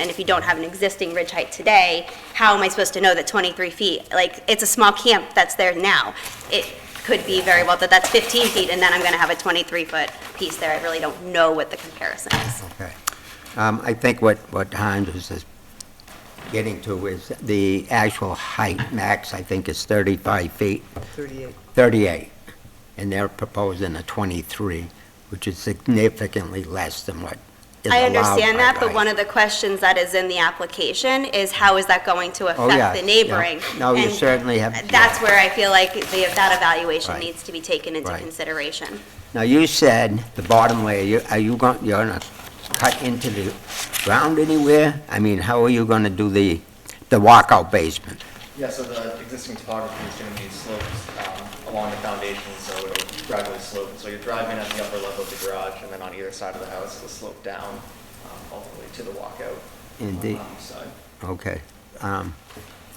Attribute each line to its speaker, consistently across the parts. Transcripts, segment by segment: Speaker 1: And if you don't have an existing ridge height today, how am I supposed to know that 23 feet? Like, it's a small camp that's there now. It could be very well that that's 15 feet, and then I'm going to have a 23-foot piece there. I really don't know what the comparison is.
Speaker 2: Okay. Um, I think what, what Hans is is getting to is the actual height max, I think, is 35 feet,
Speaker 3: 38.
Speaker 2: 38, and they're proposing a 23, which is significantly less than what is
Speaker 1: I
Speaker 2: allowed
Speaker 1: understand
Speaker 2: by
Speaker 1: that, but
Speaker 2: right.
Speaker 1: one of the questions that is is in the application is how is that going to
Speaker 2: Oh, yeah,
Speaker 1: affect the
Speaker 2: yeah.
Speaker 1: neighboring?
Speaker 2: No, you
Speaker 1: And
Speaker 2: certainly have.
Speaker 1: That's
Speaker 2: yeah.
Speaker 1: where I feel like the- that evaluation
Speaker 2: Right.
Speaker 1: needs to be taken into
Speaker 2: Right.
Speaker 1: consideration.
Speaker 2: Now, you said the bottom layer, you- are you going, you're going to cut into the ground anywhere? I mean, how are you going to do the, the walkout basement?
Speaker 4: Yeah, so the existing topography is going to be sloped um, along the foundation, so it'll gradually slope. So you're driving at the upper level of the garage, and then on either side of the house, it'll slope down um, ultimately to the walkout.
Speaker 2: And
Speaker 4: on
Speaker 2: the-
Speaker 4: um, side.
Speaker 2: Okay. Um,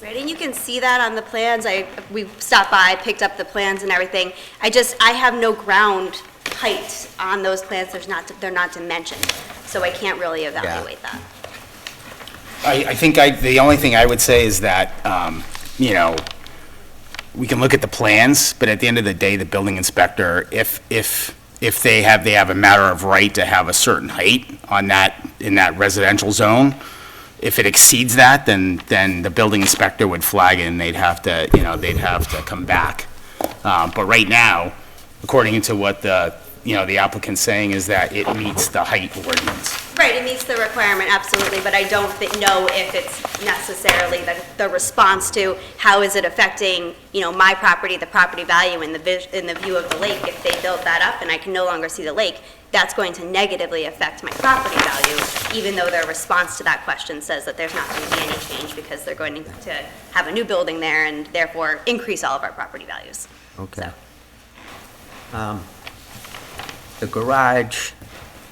Speaker 1: Right, and you can see that on the plans, I, we stopped by, picked up the plans and everything. I just, I have no ground height on those plans, there's not, they're not dimensioned, so I can't really evaluate that.
Speaker 5: I, I think I, the only thing I would say is that, um, you know, we can look at the plans, but at the end of the day, the building inspector, if, if, if they have, they have a matter of right to have a certain height on that, in that residential zone, if it exceeds that, then, then the building inspector would flag it and they'd have to, you know, they'd have to come back. Um, but right now, according to what the, you know, the applicant's saying is that it meets the height ordinance.
Speaker 1: Right, it meets the requirement, absolutely, but I don't thi- know if it's necessarily the, the response to how is it affecting, you know, my property, the property value, and the vis, and the view of the lake. If they build that up and I can no longer see the lake, that's going to negatively affect my property value, even though their response to that question says that there's not going to be any change because they're going to have a new building there and therefore increase all of our property values.
Speaker 2: Okay. Um, The garage,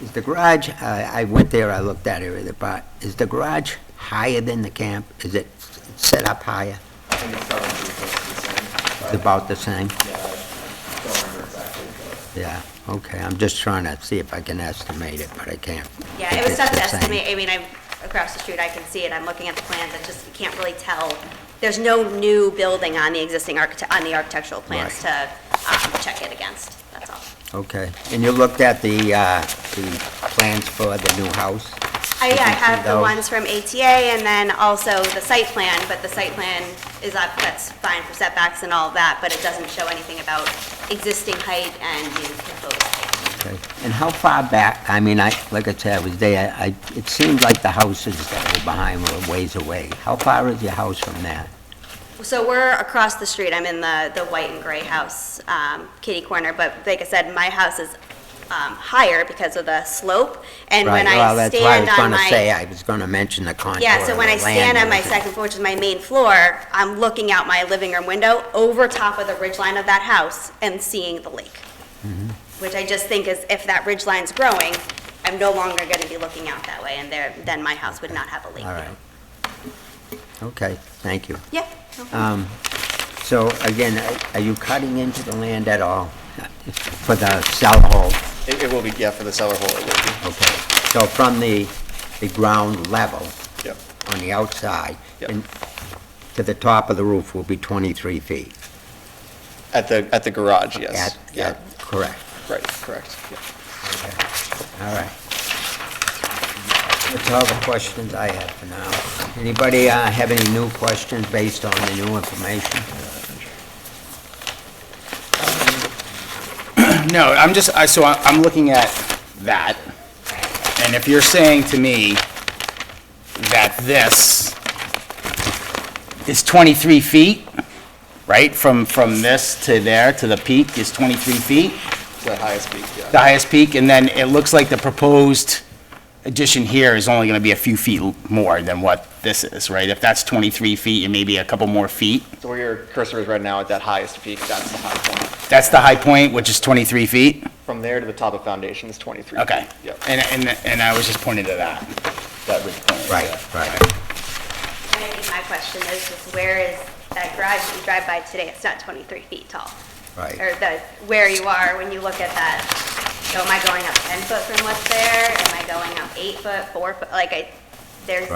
Speaker 2: is the garage, I I went there, I looked at it, but is the garage higher than the camp? Is it s- set up higher?
Speaker 4: I think it's probably close to the same.
Speaker 2: It's about the same?
Speaker 4: Yeah, I don't remember exactly, but.
Speaker 2: Yeah, okay, I'm just trying to see if I can estimate it, but I can't.
Speaker 1: Yeah, it was
Speaker 2: If it's
Speaker 1: tough to
Speaker 2: the same.
Speaker 1: estimate, I mean, I'm across the street, I can see it, I'm looking at the plans, I just can't really tell. There's no new building on the existing architect, on the architectural plans to um, check it against, that's all.
Speaker 2: Okay, and you looked at the, uh, the plans for the new house?
Speaker 1: I, I
Speaker 2: can see
Speaker 1: have the
Speaker 2: those.
Speaker 1: ones from ATA and then also the site plan, but the site plan is up, that's fine for setbacks and all of that, but it doesn't show anything about existing height and new proposed height.
Speaker 2: Okay. And how far back, I mean, I, like I said, I was there, I, it seemed like the houses that were behind were a ways away. How far is your house from that?
Speaker 1: So we're across the street, I'm in the, the white and gray house, um, kitty corner, but like I said, my house is, um, higher because of the slope, and when
Speaker 2: Right, well,
Speaker 1: I
Speaker 2: that's why I
Speaker 1: stand
Speaker 2: was
Speaker 1: on
Speaker 2: gonna say,
Speaker 1: my,
Speaker 2: I was gonna mention the contour of
Speaker 1: yeah, so when
Speaker 2: the
Speaker 1: I stand
Speaker 2: land
Speaker 1: on my
Speaker 2: and-
Speaker 1: second floor, which is my main floor, I'm looking out my living room window over top of the ridge line of that house and seeing the lake.
Speaker 2: Mm-hmm.
Speaker 1: Which I just think is, if that ridge line's growing, I'm no longer gonna be looking out that way, and there, then my house would not have a lake
Speaker 2: All
Speaker 1: view.
Speaker 2: right. Okay, thank you.
Speaker 1: Yeah. no problem.
Speaker 2: Um, so again, are- are you cutting into the land at all for the cell hole?
Speaker 4: It it will be, yeah, for the cellar hole, it will
Speaker 2: Okay, so from the, the ground level
Speaker 4: be, yep.
Speaker 2: on the outside
Speaker 4: Yep.
Speaker 2: and to the top of the roof will be twenty-three feet?
Speaker 4: At the, at the garage, yes.
Speaker 2: At-
Speaker 4: Yeah,
Speaker 2: at- Correct.
Speaker 4: right, correct, yeah.
Speaker 2: Okay, all right. That's all the questions I have for now. Anybody uh, have any new questions based on the new information?
Speaker 5: No, I'm just, I, so I- I'm looking at that, and if you're saying to me that this is 23 feet, right, from, from this to there, to the peak is 23 feet,
Speaker 4: The highest peak,
Speaker 5: the
Speaker 4: yeah.
Speaker 5: highest peak, and then it looks like the proposed addition here is only gonna be a few feet more than what this is, right? If that's 23 feet, it may be a couple more feet.
Speaker 4: So where your cursor is right now, at that highest peak, that's the high point.
Speaker 5: That's the high point, which is 23 feet?
Speaker 4: From there to the top of foundation is 23.
Speaker 5: Okay.
Speaker 4: Yep.
Speaker 5: And, and, and I was just pointing to that, that ridge point.
Speaker 2: Right, right.
Speaker 1: And I think my question is, is where is that garage that you drive by today? It's not 23 feet tall.
Speaker 2: Right.
Speaker 1: Or the, where you are when you look at that. So am I going up 10 foot from what's there? Am I going up eight foot, four foot? Like I, there's